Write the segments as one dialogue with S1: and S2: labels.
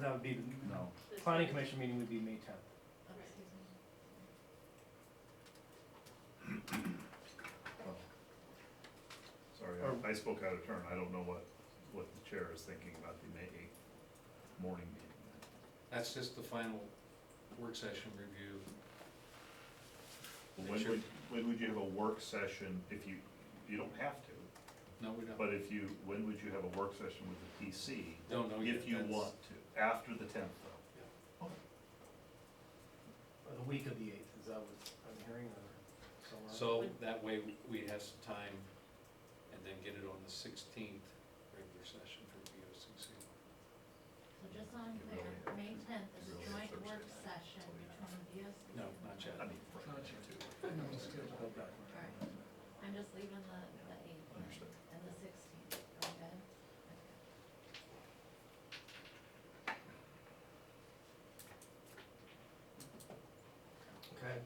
S1: that would be,
S2: No,
S1: the planning commission meeting would be May tenth.
S3: Oh,
S2: sorry,
S1: Or-
S2: I- I spoke out of turn, I don't know what, what the chair is thinking about the May eighth morning meeting.
S4: That's just the final work session review.
S2: When
S4: Sure.
S2: would, when would you have a work session, if you, you don't have to,
S4: No, we don't,
S2: but if you, when would you have a work session with the PC?
S4: don't know yet.
S2: If you
S4: That's-
S2: want to, after the tenth though.
S1: Or the week of the eighth, is that what I'm hearing or somewhere?
S4: So that way we have some time and then get it on the sixteenth regular session for the
S3: So
S4: BOCC.
S3: just so I'm clear, May tenth is a joint work session between the BOC.
S4: No, not yet.
S2: I mean, right, too.
S1: Go back.
S3: Alright. I'm just leaving the, the eighth
S2: Understood.
S3: and the sixteenth, okay?
S1: Okay,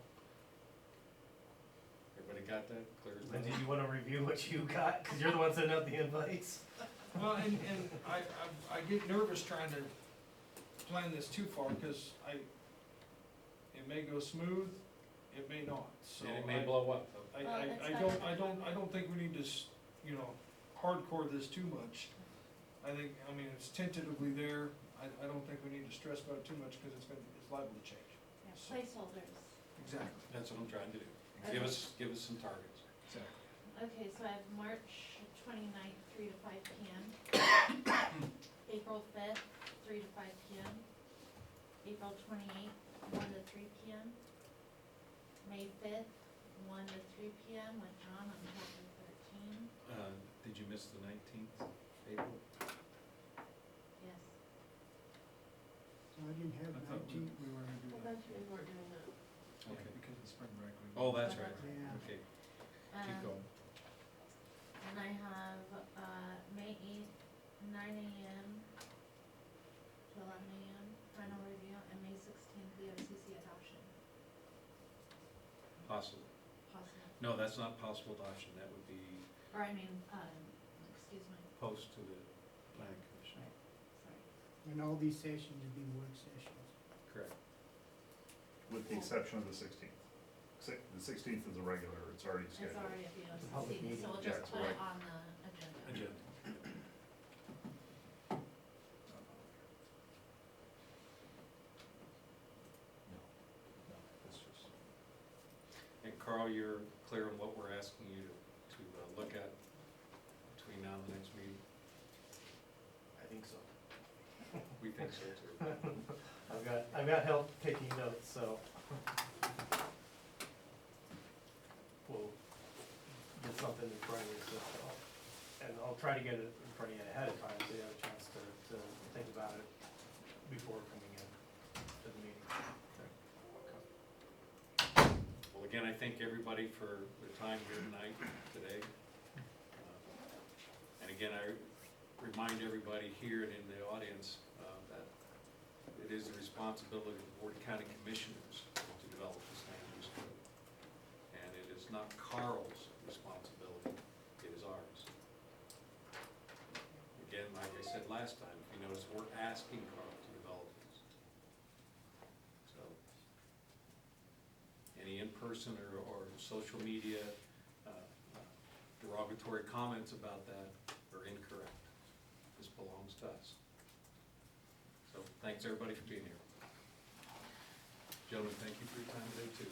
S4: Everybody got that clear? as
S1: and
S4: mud?
S1: did you wanna review what you got, cause you're the one sending out the invites?
S5: Well, and, and I, I, I get nervous trying to plan this too far, cause I, it may go smooth, it may not, so.
S4: And it
S5: I-
S4: may blow up.
S5: I,
S3: Well,
S5: I,
S3: that's
S5: I
S3: not
S5: don't,
S3: gonna
S5: I don't, I
S3: happen.
S5: don't think we need to, s- you know, hardcore this too much. I think, I mean, it's tentatively there, I, I don't think we need to stress about it too much, cause it's gonna, it's liable to change.
S3: Yeah, Placeholders.
S5: Exactly.
S4: That's what I'm trying to do. Give us, give us some targets.
S5: Exactly.
S3: Okay, so I have March twenty-ninth, three to five P M. April fifth, three to five P M. April twenty-eighth, one to three P M. May fifth, one to three P M with John on chapter thirteen,
S4: Uh, Did you miss the nineteenth, April?
S3: yes.
S6: So I didn't have
S5: I thought we-
S6: nineteen, we were gonna do that.
S4: Okay.
S5: Because of spring break. we-
S4: Oh, that's right.
S6: Yeah.
S4: Okay,
S3: Um,
S4: keep going.
S3: And I have, uh, May eighth, nine AM to eleven AM, final review, and May sixteenth, the OCC adoption,
S4: Possible.
S3: possible,
S4: No, that's not possible adoption. That would be
S3: or I mean, um, excuse me,
S4: post to the planning commission.
S3: sorry.
S6: And all these sessions would be work sessions.
S4: Correct.
S2: With the exception of the sixteenth. The sixteenth is a regular, it's already
S3: It's
S2: scheduled.
S3: already at the
S1: public
S3: OCC, so we'll
S2: meeting.
S3: just put
S2: Yeah,
S3: it
S2: right.
S3: on the agenda.
S4: Agenda.
S2: No, no, that's just.
S4: And Carl, you're clear on what we're asking you to, to uh, look at between now and the next meeting?
S1: I think so.
S4: We think so too.
S1: I've got, I've got help taking notes, so. We'll get something in front of you, so, I'll- and I'll try to get it in front of you ahead of time, so you have a chance to, to think about it before coming in to the meeting.
S4: Well, again, I thank everybody for their time here tonight, today. Uh, And again, I remind everybody here and in the audience uh, that it is the responsibility of the Board of County Commissioners to develop this land use code. And it is not Carl's responsibility, it is ours. Again, like I said last time, if you notice, we're asking Carl to develop this. So, any in-person or, or social media uh, derogatory comments about that are incorrect. This belongs to us. So, thanks everybody for being here. Gentlemen, thank you for your time today too.